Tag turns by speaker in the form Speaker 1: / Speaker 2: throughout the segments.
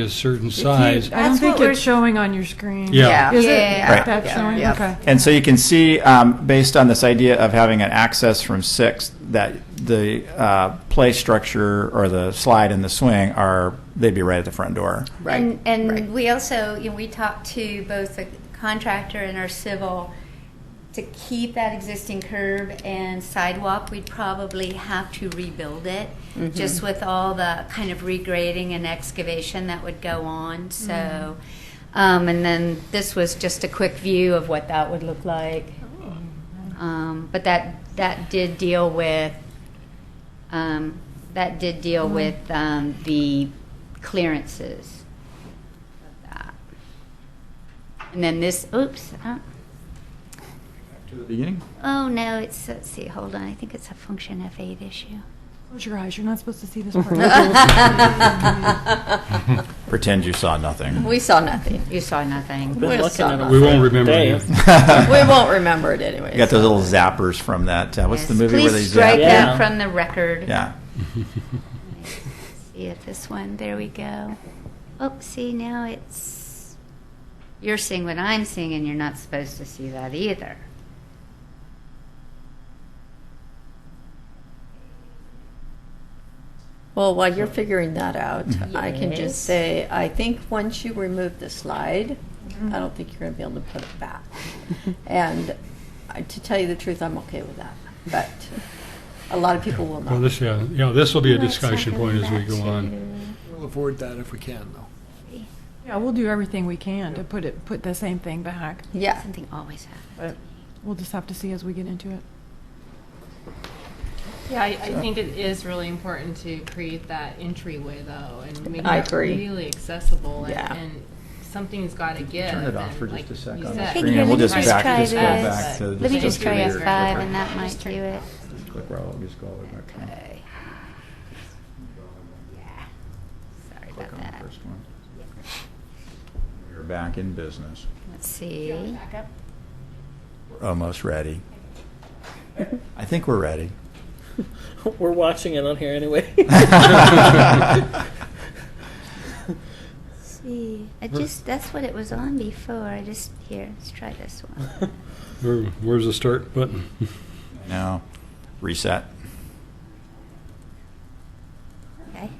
Speaker 1: a certain size.
Speaker 2: I don't
Speaker 3: That's
Speaker 2: think
Speaker 3: what
Speaker 2: it's showing on your screen.
Speaker 1: Yeah.
Speaker 2: Is it?
Speaker 3: Yeah.
Speaker 4: Right.
Speaker 2: That's showing,
Speaker 3: Yeah.
Speaker 2: okay.
Speaker 4: And so you can see, um, based on this idea of having an access from six, that the uh, play structure or the slide and the swing are, they'd be right at the front door.
Speaker 3: Right,
Speaker 5: And, and
Speaker 3: right.
Speaker 5: we also, you know, we talked to both the contractor and our civil to keep that existing curb and sidewalk. We'd probably have to rebuild it
Speaker 3: Mm-hmm.
Speaker 5: just with all the kind of regrading and excavation that would go on. So,
Speaker 3: Mm-hmm.
Speaker 5: um, and then this was just a quick view of what that would look like.
Speaker 3: Oh.
Speaker 5: Um, but that that did deal with um, that did deal
Speaker 3: Mm-hmm.
Speaker 5: with um, the clearances of that. And then this, oops, uh,
Speaker 4: To the beginning?
Speaker 5: oh no, it's, let's see, hold on, I think it's a function F8 issue.
Speaker 2: Close your eyes, you're not supposed to see this part.
Speaker 4: Pretend you saw nothing.
Speaker 3: We saw nothing.
Speaker 5: You saw nothing.
Speaker 3: We
Speaker 6: Been looking
Speaker 3: saw
Speaker 6: at it
Speaker 1: We won't
Speaker 6: for
Speaker 1: remember
Speaker 6: days.
Speaker 1: you.
Speaker 3: We won't remember it anyway.
Speaker 4: You got those little zappers from that, uh, what's the
Speaker 5: Yes,
Speaker 4: movie where they
Speaker 5: Please strike
Speaker 4: zap?
Speaker 6: Yeah.
Speaker 5: that from the record.
Speaker 4: Yeah.
Speaker 5: See if this one, there we go. Oh, see, now it's, you're seeing what I'm seeing and you're not supposed to see that either.
Speaker 3: Well, while you're figuring that out, I can
Speaker 5: Yes.
Speaker 3: just say, I think once you remove the slide,
Speaker 2: Mm-hmm.
Speaker 3: I don't think you're going to be able to put it back. and I- to tell you the truth, I'm okay with that. But a lot of people will not.
Speaker 1: Well, this, yeah, yeah, this will be a
Speaker 5: No, it's not
Speaker 1: discussion point
Speaker 5: going
Speaker 1: as we
Speaker 5: back
Speaker 1: go on.
Speaker 5: to-
Speaker 7: We'll avoid that if we can, though.
Speaker 2: Yeah, we'll do everything we can to put it, put the same thing back.
Speaker 3: yeah.
Speaker 5: Something always happens.
Speaker 2: We'll just have to see as we get into it.
Speaker 8: Yeah, I, I think it is really important to create that entryway though and make
Speaker 3: I
Speaker 8: it
Speaker 3: agree.
Speaker 8: really accessible and,
Speaker 3: Yeah.
Speaker 8: and something's got to give.
Speaker 4: Turn it off
Speaker 8: and
Speaker 4: for
Speaker 8: like
Speaker 4: just a sec
Speaker 8: you
Speaker 4: on the
Speaker 8: said-
Speaker 4: screen, and we'll just
Speaker 5: Let me
Speaker 4: back,
Speaker 5: try
Speaker 4: just go
Speaker 5: this.
Speaker 4: back to.
Speaker 5: Let me just try
Speaker 4: go
Speaker 5: F5
Speaker 4: to your-
Speaker 5: and that might do it.
Speaker 4: Click right, we'll just go all the way back to-
Speaker 5: Okay. Yeah. Sorry
Speaker 4: click
Speaker 5: about
Speaker 4: on the
Speaker 5: that.
Speaker 4: first one. We're back in business.
Speaker 5: Let's see.
Speaker 4: We're almost ready. I think we're ready.
Speaker 6: We're watching it on here anyway.
Speaker 5: See, I just, that's what it was on before. I just, here, let's try this one.
Speaker 1: Where- Where's the start button?
Speaker 4: Now, reset.
Speaker 5: Okay.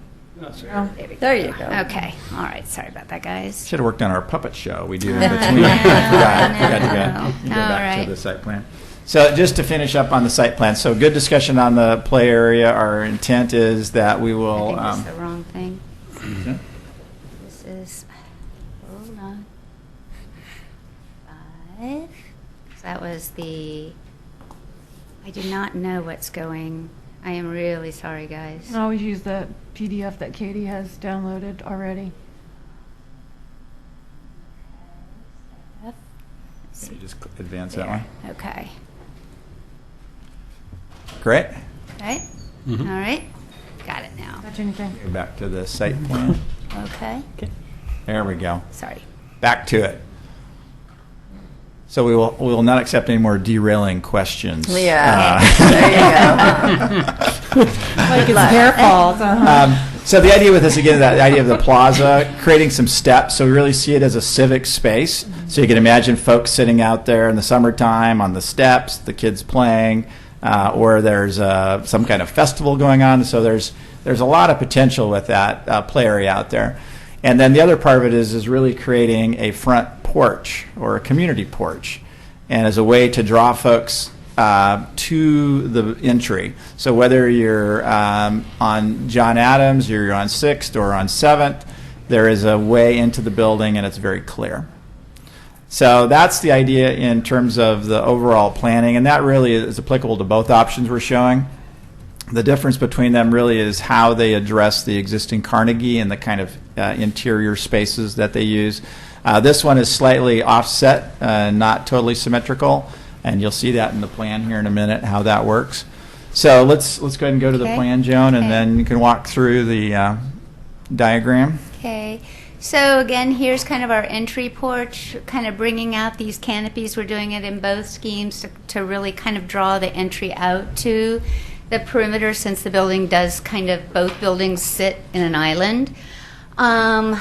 Speaker 5: Oh, There we go.
Speaker 3: There you go.
Speaker 5: Okay, all right, sorry about that, guys.
Speaker 4: Should have worked on our puppet show we do
Speaker 5: I
Speaker 4: in between.
Speaker 5: know,
Speaker 4: Forgot-
Speaker 5: I
Speaker 4: forgot to
Speaker 5: know.
Speaker 4: go- go
Speaker 5: All
Speaker 4: back
Speaker 5: right.
Speaker 4: to the site plan. So just to finish up on the site plan, so good discussion on the play area. Our intent is that we
Speaker 5: I
Speaker 4: will.
Speaker 5: think that's
Speaker 4: um,
Speaker 5: the wrong thing.
Speaker 4: yeah.
Speaker 5: This is, hold on. Five. So that was the, I do not know what's going, I am really sorry, guys.
Speaker 4: Oh.
Speaker 2: And always use that PDF that Katie has downloaded already.
Speaker 5: F.
Speaker 4: Can you Just cl- advance that one.
Speaker 5: Okay,
Speaker 4: Great.
Speaker 5: right? All
Speaker 1: Mhm.
Speaker 5: right, got it now.
Speaker 2: Touch anything.
Speaker 4: Go Back to the site plan.
Speaker 5: Okay,
Speaker 4: There we go.
Speaker 5: sorry.
Speaker 4: Back to it. So we will, we will not accept any more derailing questions.
Speaker 3: Yeah.
Speaker 4: Uh,
Speaker 2: Like it's their fault,
Speaker 4: Um, so the idea with this again, that idea of the plaza, creating some steps, so we really see it as a civic space. So you can imagine folks sitting out there in the summertime on the steps, the kids playing, uh, or there's uh, some kind of festival going on. So there's there's a lot of potential with that uh, play area out there. And then the other part of it is is really creating a front porch or a community porch and as a way to draw folks uh, to the entry. So whether you're um, on John Adams, or you're on Sixth, or on Seventh, there is a way into the building, and it's very clear. So that's the idea in terms of the overall planning, and that really is applicable to both options we're showing. The difference between them really is how they address the existing Carnegie and the kind of uh, interior spaces that they use. Uh, this one is slightly offset, uh, not totally symmetrical, and you'll see that in the plan here in a minute how that works. So let's let's go ahead and go to the
Speaker 5: Okay.
Speaker 4: plan, Joan, and
Speaker 5: Okay.
Speaker 4: then you can walk through the uh, diagram.
Speaker 5: Okay, so again, here's kind of our entry porch, kind of bringing out these canopies. We're doing it in both schemes to, to really kind of draw the entry out to the perimeter since the building does kind of, both buildings sit in an island. Um,